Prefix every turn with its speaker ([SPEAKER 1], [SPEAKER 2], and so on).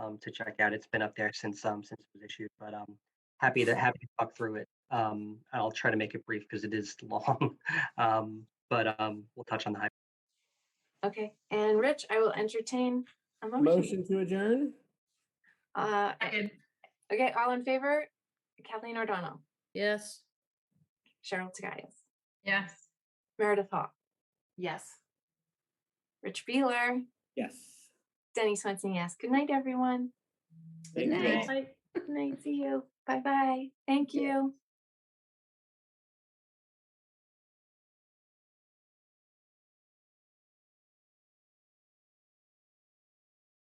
[SPEAKER 1] um, to check out. It's been up there since um, since it was issued, but um, happy to happy to talk through it. Um, I'll try to make it brief because it is long, um, but um, we'll touch on the high.
[SPEAKER 2] Okay, and Rich, I will entertain a motion.
[SPEAKER 3] Motion to adjourn?
[SPEAKER 2] Uh,
[SPEAKER 4] Second.
[SPEAKER 2] okay, all in favor? Kathleen O'Donnell,
[SPEAKER 5] Yes.
[SPEAKER 2] Cheryl Tagayas,
[SPEAKER 4] Yes.
[SPEAKER 2] Meredith Hall,
[SPEAKER 4] Yes.
[SPEAKER 2] Rich Beeler,
[SPEAKER 3] Yes.
[SPEAKER 2] Denny Swenson, yes. Good night, everyone.
[SPEAKER 3] Thank you.
[SPEAKER 4] night.
[SPEAKER 2] Good night. See you. Bye bye. Thank you.